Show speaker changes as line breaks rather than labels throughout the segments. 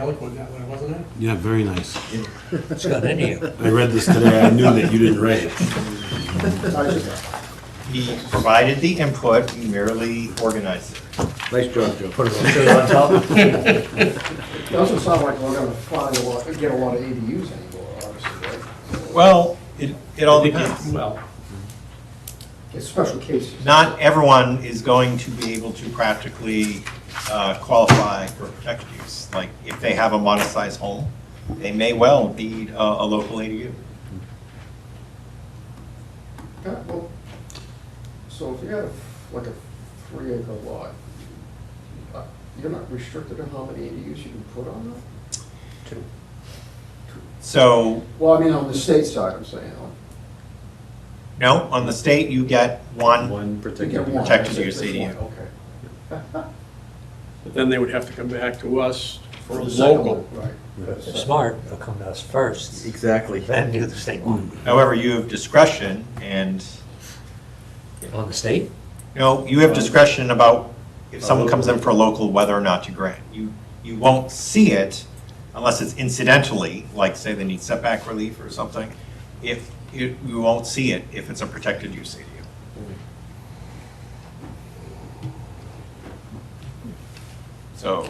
eloquent that way, wasn't it?
Yeah, very nice.
It's got in you.
I read this today, I knew that you didn't write it.
He provided the input, he merely organized it.
Nice job, Joe. Put it on- put it on top.
It Doesn't sound like we're gonna find a lot, get a lot of ADUs anymore, obviously, right?
Well, it, it all depends.
Well,
It's special cases.
Not everyone is going to be able to practically uh, qualify for protected use. Like, if they have a modest-sized home, they may well need a, a local ADU.
Yeah, well, So if you have like a three acre lot, uh, you're not restricted to how many ADUs you can put on that?
So,
Well, I mean, on the state side, I'm saying, on-
no, on the state, you get one,
One
you get
particular.
one.
Protected
that's-
use
that's
ADU.
one, Okay.
but then they would have to come back to us for a
The second
local.
one, Right.
Smart, they'll come to us first,
Exactly.
then do the state one.
however, you have discretion, and,
On the state?
you know, you have discretion about if someone comes in for local, whether or not to grant. You, you won't see it unless it's incidentally, like, say, they need setback relief or something. If, you, you won't see it if it's a protected use ADU. So,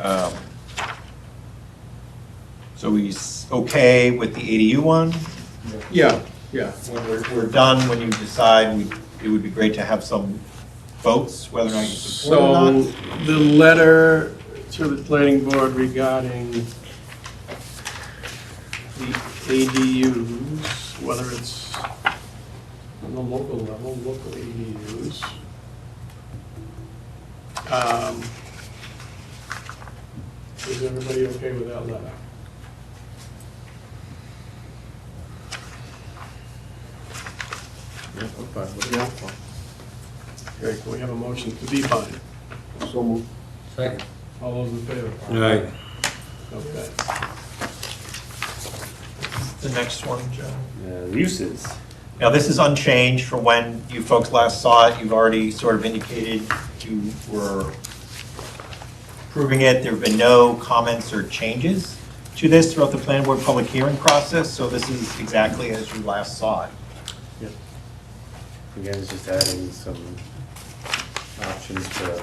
um, so we s- okay with the ADU one?
Yeah, yeah.
When we're, we're done, when you decide, we, it would be great to have some votes, whether or not you support or
So
not.
the letter to the planning board regarding the ADUs, whether it's on the local level, local ADUs. Um, Is everybody okay with that letter? Yeah. Great, can we have a motion to be fine?
So moved.
Second.
All those in favor?
Alright,
Okay.
The next one, Joe.
Uh, Uses.
Now, this is unchanged from when you folks last saw it. You've already sort of indicated you were approving it. There have been no comments or changes to this throughout the planning board public hearing process, so this is exactly as you last saw it.
Again, it's just adding some options to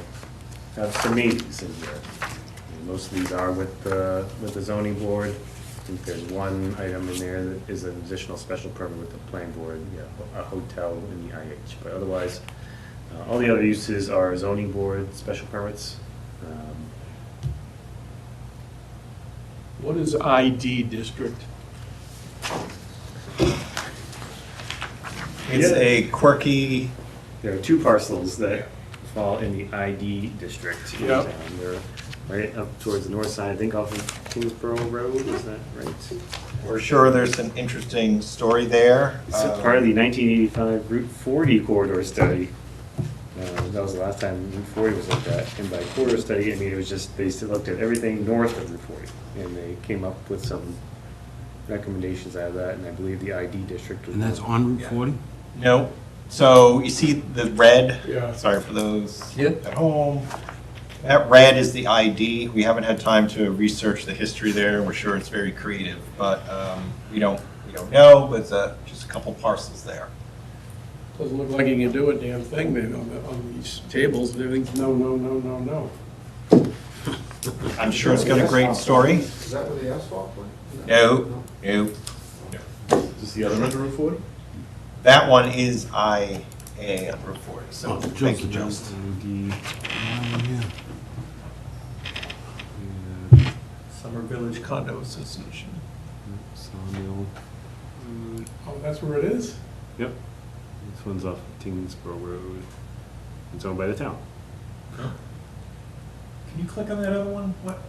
have some meetings in here. And Most of these are with the, with the zoning board. I think there's one item in there that is an additional special permit with the planning board, yeah, a hotel in the IH. But otherwise, uh, all the other uses are zoning board special permits. Um,
What is ID district?
It's
Yeah.
a quirky,
There are two parcels that fall in the ID district. in
Yep.
town. They're right up towards the north side, I think off of Kingsborough Road, is that right?
we're sure there's an interesting story there.
It's a part of the 1985 Route 40 corridor study. Uh, That was the last time Route 40 was looked at. And by corridor study, I mean, it was just, they still looked at everything north of Route 40. And they came up with some recommendations out of that, and I believe the ID district. was
and that's
one.
on Route 40?
No. So you see the red?
Yeah.
Sorry for those
Yeah.
at home. That red is the ID. We haven't had time to research the history there. We're sure it's very creative, but um, we don't, we don't know, but it's uh, just a couple parcels there.
Doesn't look like you can do a damn thing then on the, on these tables, everything's no, no, no, no, no.
I'm sure it's got a great story.
Is that where the asphalt went?
No, no.
Is the other under Route 40?
That one is IA report, so thank you, Joseph.
uh,
Summer Village Condo Association.
Sawmill,
Oh, that's where it is?
Yep. This one's off Tingsboro Road. It's owned by the town.
Can you click on that other one? What?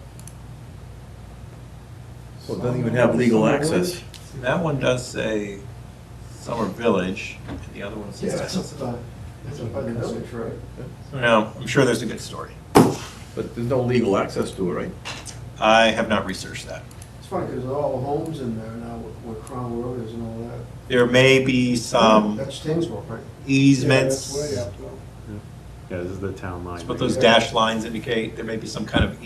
Well, it doesn't even have legal access.
See, That one does say Summer Village, and the other one
Yeah,
says.
that's up by, that's up by the village, right?
No, I'm sure there's a good story.
But there's no legal access to it, right?
I have not researched that.
It's funny, because all the homes in there now, where Crown Road is and all that.
There may be some
That's Tingsville, right?
easements,
Yeah, that's way
that's
up though.
Yeah, this is the town line.
what
right
those dash lines indicate, there may be some kind of